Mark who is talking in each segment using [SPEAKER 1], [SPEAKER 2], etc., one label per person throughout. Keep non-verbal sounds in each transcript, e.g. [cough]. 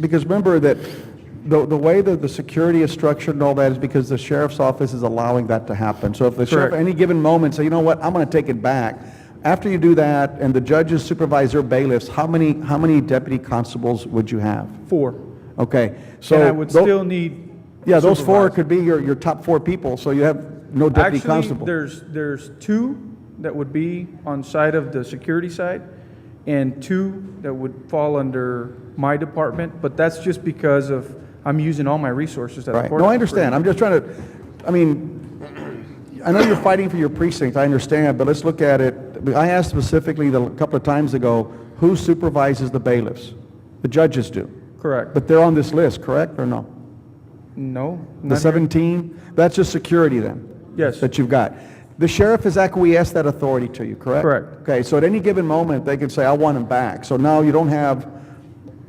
[SPEAKER 1] Because remember that the, the way that the security is structured and all that is because the sheriff's office is allowing that to happen. So if the sheriff at
[SPEAKER 2] Correct.
[SPEAKER 1] any given moment say, you know what, I'm going to take it back. After you do that, and the judges supervise their bailiffs, how many, how many deputy constables would you have?
[SPEAKER 2] Four.
[SPEAKER 1] Okay, so.
[SPEAKER 2] And I would
[SPEAKER 1] tho-
[SPEAKER 2] still need.
[SPEAKER 1] Yeah, those four
[SPEAKER 2] supervisors.
[SPEAKER 1] could be your, your top four people, so you have no deputy
[SPEAKER 2] Actually,
[SPEAKER 1] constable.
[SPEAKER 2] there's, there's two that would be on side of the security side and two that would fall under my department, but that's just because of, I'm using all my resources that the
[SPEAKER 1] Right,
[SPEAKER 2] court.
[SPEAKER 1] no, I understand, I'm just trying to, I mean, [clears throat] I know you're fighting for your precinct, I understand, but let's look at it. I asked specifically the- a couple of times ago, who supervises the bailiffs? The judges do,
[SPEAKER 2] Correct.
[SPEAKER 1] but they're on this list, correct, or no?
[SPEAKER 2] No.
[SPEAKER 1] The
[SPEAKER 2] not here.
[SPEAKER 1] 17, that's just security then?
[SPEAKER 2] Yes.
[SPEAKER 1] That you've got. The sheriff has acquiesced that authority to you, correct?
[SPEAKER 2] Correct.
[SPEAKER 1] Okay, so at any given moment, they can say, I want him back. So now you don't have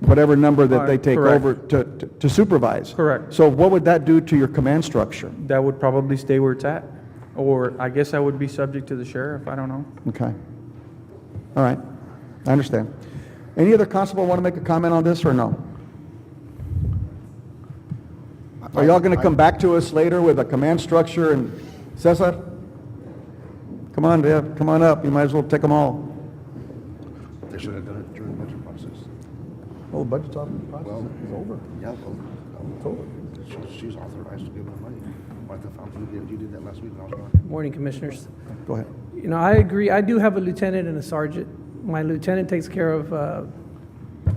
[SPEAKER 1] whatever number that they
[SPEAKER 2] Alright,
[SPEAKER 1] take
[SPEAKER 2] correct.
[SPEAKER 1] over to to- to supervise.
[SPEAKER 2] Correct.
[SPEAKER 1] So what would that do to your command structure?
[SPEAKER 2] That would probably stay where it's at. Or I guess I would be subject to the sheriff. I don't know.
[SPEAKER 1] Okay. All right, I understand. Any other constable want to make a comment on this, or no? Are y'all going to come back to us later with a command structure and Cesar? Come on, Deb, come on up, you might as well take them all.
[SPEAKER 3] They should have done it during the budget process.
[SPEAKER 1] Well, Oh, the budget's off,
[SPEAKER 3] Well, it's over. Yeah, well, it's over. She's, she's authorized to give them money. Martha Fountain, you did- you did that last week when I was gone.
[SPEAKER 4] Morning, Commissioners.
[SPEAKER 1] go ahead.
[SPEAKER 4] You know, I agree, I do have a lieutenant and a sergeant. My lieutenant takes care of, uh,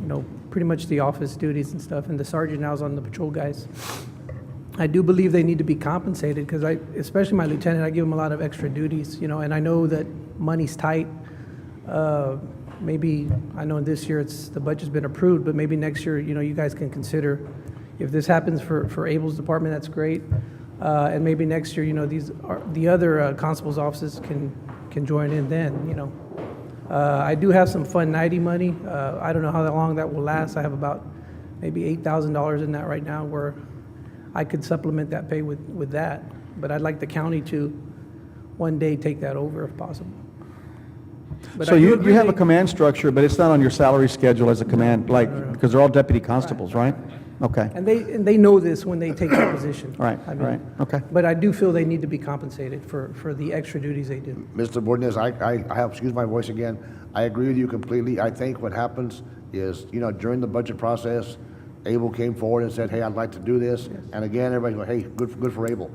[SPEAKER 4] you know, pretty much the office duties and stuff, and the sergeant now is on the patrol guys. I do believe they need to be compensated, because I, especially my lieutenant, I give him a lot of extra duties, you know, and I know that money's tight. Uh, Maybe, I know this year it's, the budget's been approved, but maybe next year, you know, you guys can consider, if this happens for, for Abel's department, that's great. Uh, And maybe next year, you know, these, are the other uh, constables' offices can, can join in then, you know. Uh, I do have some Fund 90 money. Uh, I don't know how long that will last. I have about maybe $8,000 in that right now where I could supplement that pay with, with that. But I'd like the county to one day take that over if possible. But
[SPEAKER 1] So
[SPEAKER 4] I do
[SPEAKER 1] you, you
[SPEAKER 4] agree
[SPEAKER 1] have a
[SPEAKER 4] they-
[SPEAKER 1] command structure, but it's not on your salary schedule as a command, like, because they're all deputy constables, right? Okay, all
[SPEAKER 4] And they, and they know this when they
[SPEAKER 1] [coughs]
[SPEAKER 4] take that position.
[SPEAKER 1] right,
[SPEAKER 4] I
[SPEAKER 1] all
[SPEAKER 4] mean,
[SPEAKER 1] right, okay.
[SPEAKER 4] But I do feel they need to be compensated for, for the extra duties they do.
[SPEAKER 3] Mr. Bordenez, I, I, I have, excuse my voice again, I agree with you completely. I think what happens is, you know, during the budget process, Abel came forward and said, hey, I'd like to do this. And again, everybody went, hey, good, for- good for Abel.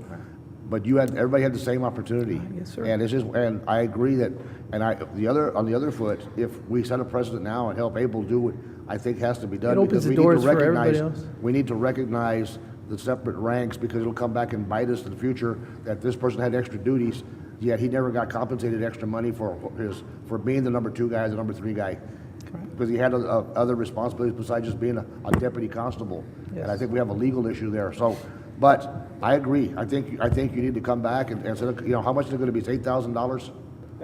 [SPEAKER 3] But you had, everybody had the same opportunity.
[SPEAKER 4] Yes, sir.
[SPEAKER 3] And it's just, and I agree that, and I, the other, on the other foot, if we set a precedent now and help Abel do what I think has to be done.
[SPEAKER 4] It
[SPEAKER 3] because
[SPEAKER 4] opens the
[SPEAKER 3] we need to
[SPEAKER 4] doors for everybody
[SPEAKER 3] recognize-
[SPEAKER 4] else.
[SPEAKER 3] we need to recognize the separate ranks because it'll come back and bite us in the future that this person had extra duties, yet he never got compensated extra money for his, for being the number two guy, the number three guy. Because he had o- o- other responsibilities besides just being a a deputy constable. And I
[SPEAKER 4] Yes.
[SPEAKER 3] think we have a legal issue there, so, but I agree. I think, I think you need to come back and, and, say, look, you know, how much is it gonna be? It's eight thousand dollars?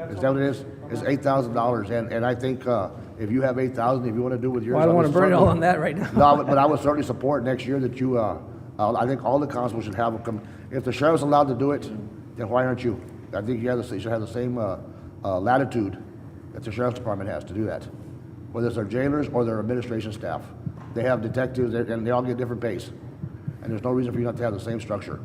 [SPEAKER 3] Is that what it is? It's eight thousand dollars, and, and I think, uh, if you have eight thousand, if you wanna do with yours.
[SPEAKER 4] Well, I don't
[SPEAKER 3] I'm
[SPEAKER 4] want to burn it all
[SPEAKER 3] certainly-
[SPEAKER 4] on that right now.
[SPEAKER 3] [laughs] no, I would- but I would certainly support next year that you, uh, uh, I think all the constables should have a, com- if the sheriff's allowed to do it, then why aren't you? I think you have the, you should have the same uh, uh, latitude that the sheriff's department has to do that. Whether it's their jailers or their administration staff. They have detectives and and they all get different pays. And there's no reason for you not to have the same structure.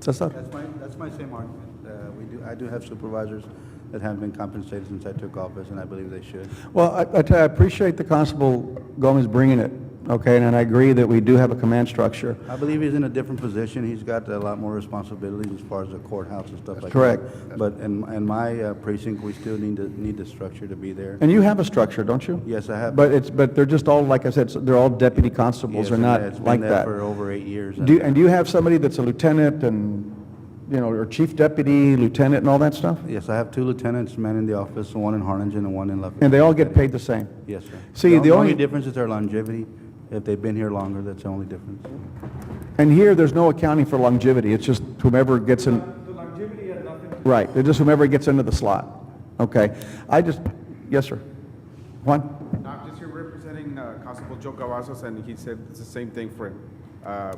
[SPEAKER 1] Cesar?
[SPEAKER 5] That's my, that's my same argument. Uh, We do, I do have supervisors that haven't been compensated since I took office, and I believe they should.
[SPEAKER 1] Well, I, I tell you, I appreciate the Constable Gomez bringing it, okay, and I agree that we do have a command structure.
[SPEAKER 5] I believe he's in a different position. He's got a lot more responsibilities as far as the courthouse and stuff like that.
[SPEAKER 1] correct.
[SPEAKER 5] But in, in my uh, precinct, we still need to, need the structure to be there.
[SPEAKER 1] And you have a structure, don't you?
[SPEAKER 5] Yes, I have.
[SPEAKER 1] But it's, but they're just all, like I said, so they're all deputy constables,
[SPEAKER 5] Yes,
[SPEAKER 1] they're
[SPEAKER 5] and
[SPEAKER 1] not like
[SPEAKER 5] It's been there
[SPEAKER 1] that.
[SPEAKER 5] for over eight years.
[SPEAKER 1] Do, you- and do you have somebody that's a lieutenant and, you know, or chief deputy, lieutenant and all that stuff?
[SPEAKER 5] Yes, I have two lieutenants, man in the office, one in Harlingen and one in Lufkin.
[SPEAKER 1] And they all get paid the same?
[SPEAKER 5] Yes, sir.
[SPEAKER 1] See, the only-
[SPEAKER 5] difference is their longevity. If they've been here longer, that's the only difference.
[SPEAKER 1] And here, there's no accounting for longevity, it's just whomever gets in.
[SPEAKER 2] The longevity had nothing to
[SPEAKER 1] Right, they're just whomever gets into the slot. Okay, I just, yes, sir. Juan?
[SPEAKER 6] I'm just here representing uh, Constable Joe Cavazos, and he said it's the same thing for him. Uh,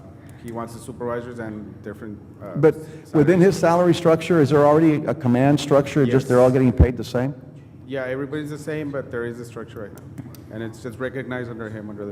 [SPEAKER 6] He wants the supervisors and different. uh,
[SPEAKER 1] But
[SPEAKER 6] salaries.
[SPEAKER 1] within his salary structure, is there already a command structure, just they're all getting paid the same?
[SPEAKER 6] Yeah, everybody's the same, but there is a structure right now. And it's, it's recognized under him, under the